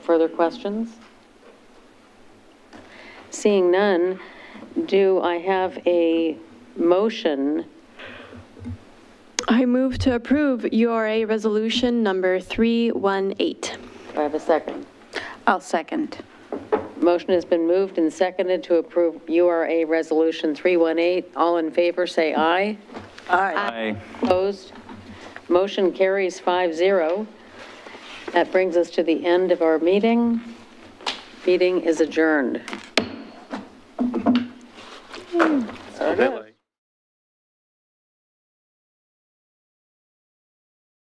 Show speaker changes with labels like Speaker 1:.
Speaker 1: further questions? Seeing none, do I have a motion?
Speaker 2: I move to approve URA Resolution Number 318.
Speaker 1: Do I have a second?
Speaker 3: I'll second.
Speaker 1: Motion has been moved and seconded to approve URA Resolution 318. All in favor, say aye.
Speaker 4: Aye.
Speaker 1: Opposed? Motion carries 5-0. That brings us to the end of our meeting. Meeting is adjourned.
Speaker 4: That